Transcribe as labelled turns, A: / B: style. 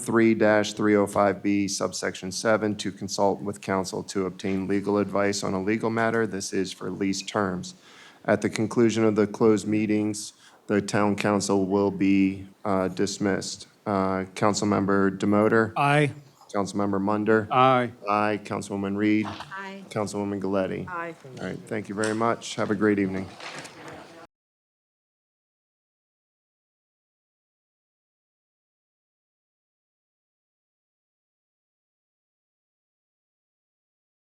A: 3-305B subsection 7 to consult with counsel to obtain legal advice on a legal matter. This is for lease terms. At the conclusion of the closed meetings, the town council will be uh, dismissed. Uh, Councilmember Demoter,
B: Aye.
A: Councilmember Munder.
B: Aye.
A: Aye. Councilwoman Reed.
C: Aye.
A: Councilwoman Galetti.
C: Aye.
A: All right, thank you very much. Have a great evening.